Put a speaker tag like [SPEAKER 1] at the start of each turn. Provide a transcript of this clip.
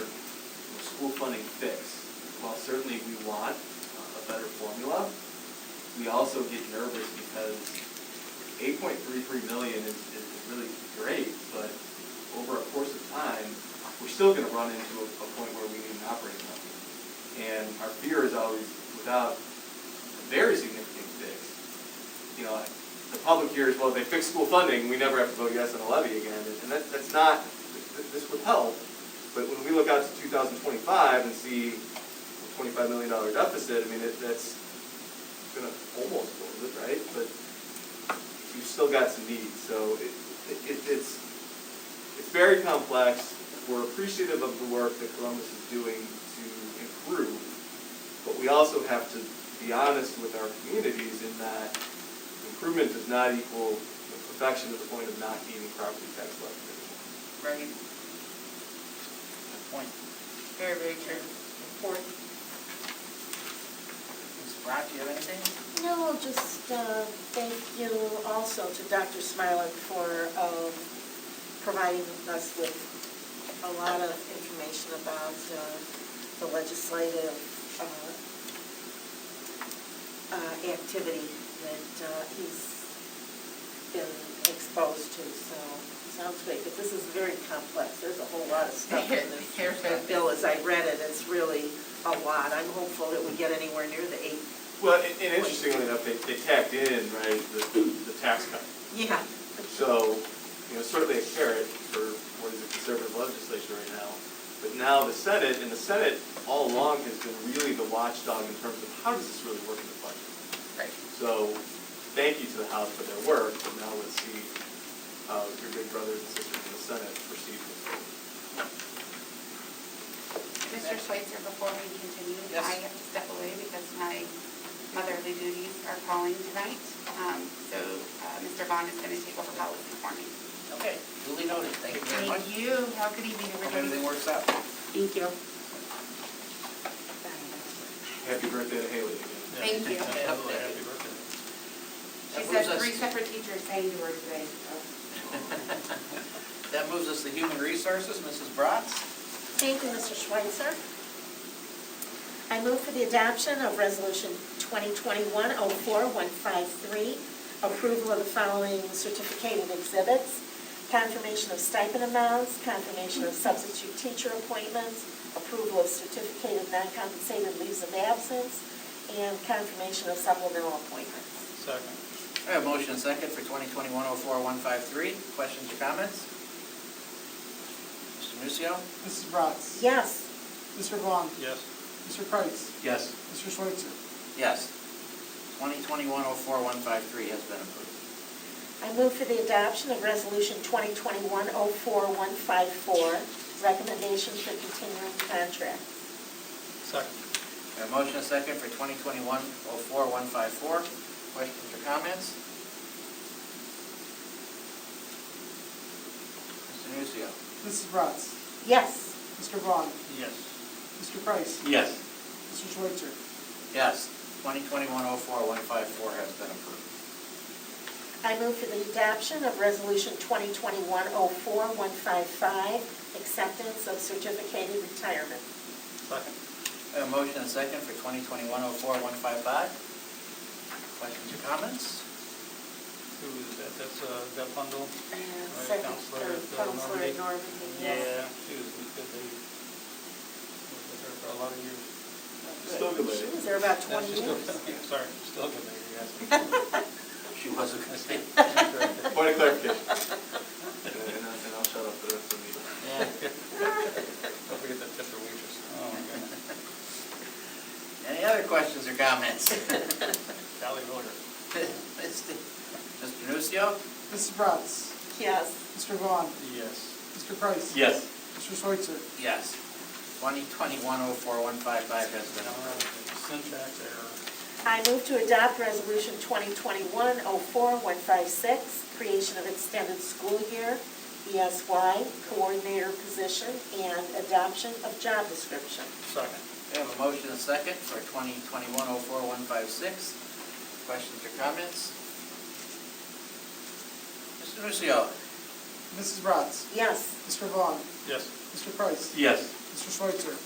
[SPEAKER 1] pool funding fix, while certainly we want uh, a better formula, we also get nervous because eight point three three million is, is really great, but over a course of time, we're still gonna run into a, a point where we need an operating budget. And our fear is always, without a very significant fix, you know, the public hears, well, they fixed school funding, we never have to vote yes on a levy again, and that, that's not, th- this would help, but when we look out to two thousand twenty-five and see a twenty-five million dollar deficit, I mean, it, that's gonna almost close it, right? But you've still got some needs, so it, it, it's, it's very complex. We're appreciative of the work that Columbus is doing to improve, but we also have to be honest with our communities in that improvement does not equal perfection to the point of not needing property tax levies.
[SPEAKER 2] Right.
[SPEAKER 3] Good point.
[SPEAKER 2] Very, very true. Important.
[SPEAKER 3] Ms. Brown, do you have anything?
[SPEAKER 4] No, just uh, thank you also to Dr. Smilak for um, providing us with a lot of information about uh, the legislative uh, uh, activity that uh, he's been exposed to, so sounds great. But this is very complex, there's a whole lot of stuff in this uh,
[SPEAKER 2] Here's a-
[SPEAKER 4] bill. As I read it, it's really a lot. I'm hopeful that we get anywhere near the eight.
[SPEAKER 1] Well, and and interestingly enough, they, they tacked in, right, the, the tax cut.
[SPEAKER 4] Yeah.
[SPEAKER 1] So, you know, certainly a carrot for what is a conservative legislature right now. But now the Senate, and the Senate all along has been really the watchdog in terms of how does this really work in the budget?
[SPEAKER 2] Right.
[SPEAKER 1] So, thank you to the House for their work, and now let's see how your big brothers and sisters in the Senate proceed with it.
[SPEAKER 5] Mr. Schweitzer, before we continue,
[SPEAKER 3] Yes.
[SPEAKER 5] I have to step away because my motherly duties are calling tonight. Um, So uh, Mr. Vaughn is going to take over policy for me.
[SPEAKER 3] Okay, duly noted, thank you very much.
[SPEAKER 5] Thank you. Have a good evening,
[SPEAKER 3] Hope everything
[SPEAKER 5] everybody.
[SPEAKER 3] works out.
[SPEAKER 4] Thank you.
[SPEAKER 1] Happy birthday to Haley again.
[SPEAKER 5] Thank you.
[SPEAKER 3] Absolutely.
[SPEAKER 6] Happy birthday.
[SPEAKER 5] She
[SPEAKER 3] That
[SPEAKER 5] said
[SPEAKER 3] moves us-
[SPEAKER 5] three separate teachers sang to her today, so.
[SPEAKER 3] That moves us to human resources, Mrs. Bratz.
[SPEAKER 4] Thank you, Mr. Schweitzer. I move for the adoption of Resolution 2021-04153, approval of the following certificated exhibits, confirmation of stipend amounts, confirmation of substitute teacher appointments, approval of certificated non-compensated leaves of absence, and confirmation of supplemental appointments.
[SPEAKER 6] Second.
[SPEAKER 3] I have motion and second for 2021-04153. Questions or comments? Mr. Nucio?
[SPEAKER 7] Mrs. Bratz?
[SPEAKER 4] Yes,
[SPEAKER 7] Mr. Vaughn?
[SPEAKER 6] Yes.
[SPEAKER 7] Mr. Kreis?
[SPEAKER 3] Yes.
[SPEAKER 7] Mr. Schweitzer?
[SPEAKER 3] Yes. 2021-04153 has been approved.
[SPEAKER 4] I move for the adoption of Resolution 2021-04154, recommendation for continuing contract.
[SPEAKER 6] Second.
[SPEAKER 3] I have motion and second for 2021-04154. Questions or comments? Mr. Nucio?
[SPEAKER 7] Mrs. Bratz?
[SPEAKER 4] Yes,
[SPEAKER 7] Mr. Vaughn?
[SPEAKER 6] Yes.
[SPEAKER 7] Mr. Kreis?
[SPEAKER 3] Yes.
[SPEAKER 7] Mr. Schweitzer?
[SPEAKER 3] Yes. 2021-04154 has been approved.
[SPEAKER 4] I move for the adoption of Resolution 2021-04155, acceptance of certificated retirement.
[SPEAKER 6] Second.
[SPEAKER 3] I have a motion and a second for 2021-04-155. Questions or comments?
[SPEAKER 6] Who is that? That's, uh, that bundle?
[SPEAKER 4] And
[SPEAKER 6] Right,
[SPEAKER 4] Second,
[SPEAKER 6] Counselor,
[SPEAKER 4] third,
[SPEAKER 6] uh,
[SPEAKER 4] Counselor
[SPEAKER 6] Normandy.
[SPEAKER 4] Norman.
[SPEAKER 6] Yeah, she was a good lady. Was with her for a lot of years.
[SPEAKER 1] Still good
[SPEAKER 4] She
[SPEAKER 1] lady.
[SPEAKER 4] was there about
[SPEAKER 6] No,
[SPEAKER 4] 20
[SPEAKER 6] she's
[SPEAKER 4] years.
[SPEAKER 6] still- yeah, Sorry, still a good lady, yes.
[SPEAKER 3] She was a good statement.
[SPEAKER 1] Point of clarification. And and I'll and I'll shut up for the rest of the meeting.
[SPEAKER 6] Don't forget that tip for waitress. Oh, my God.
[SPEAKER 3] Any other questions or comments?
[SPEAKER 6] Valley voter.
[SPEAKER 3] Mr. Nucio?
[SPEAKER 7] Mrs. Bratz?
[SPEAKER 4] Yes.
[SPEAKER 7] Mr. Vaughn?
[SPEAKER 6] Yes.
[SPEAKER 7] Mr. Kreis?
[SPEAKER 1] Yes.
[SPEAKER 7] Mr. Schweitzer?
[SPEAKER 3] Yes. 2021-04-155 has been
[SPEAKER 6] All
[SPEAKER 3] approved.
[SPEAKER 6] right, syntax error.
[SPEAKER 4] I move to adopt Resolution 2021-04156, creation of extended school year, ESY, coordinator position, and adoption of job description.
[SPEAKER 6] Second.
[SPEAKER 3] We have a motion and a second for 2021-04-156. Questions or comments? Mr. Nucio?
[SPEAKER 7] Mrs. Bratz?
[SPEAKER 4] Yes.
[SPEAKER 7] Mr. Vaughn?
[SPEAKER 6] Yes.
[SPEAKER 7] Mr. Kreis?
[SPEAKER 6] Yes.
[SPEAKER 7] Mr. Schweitzer?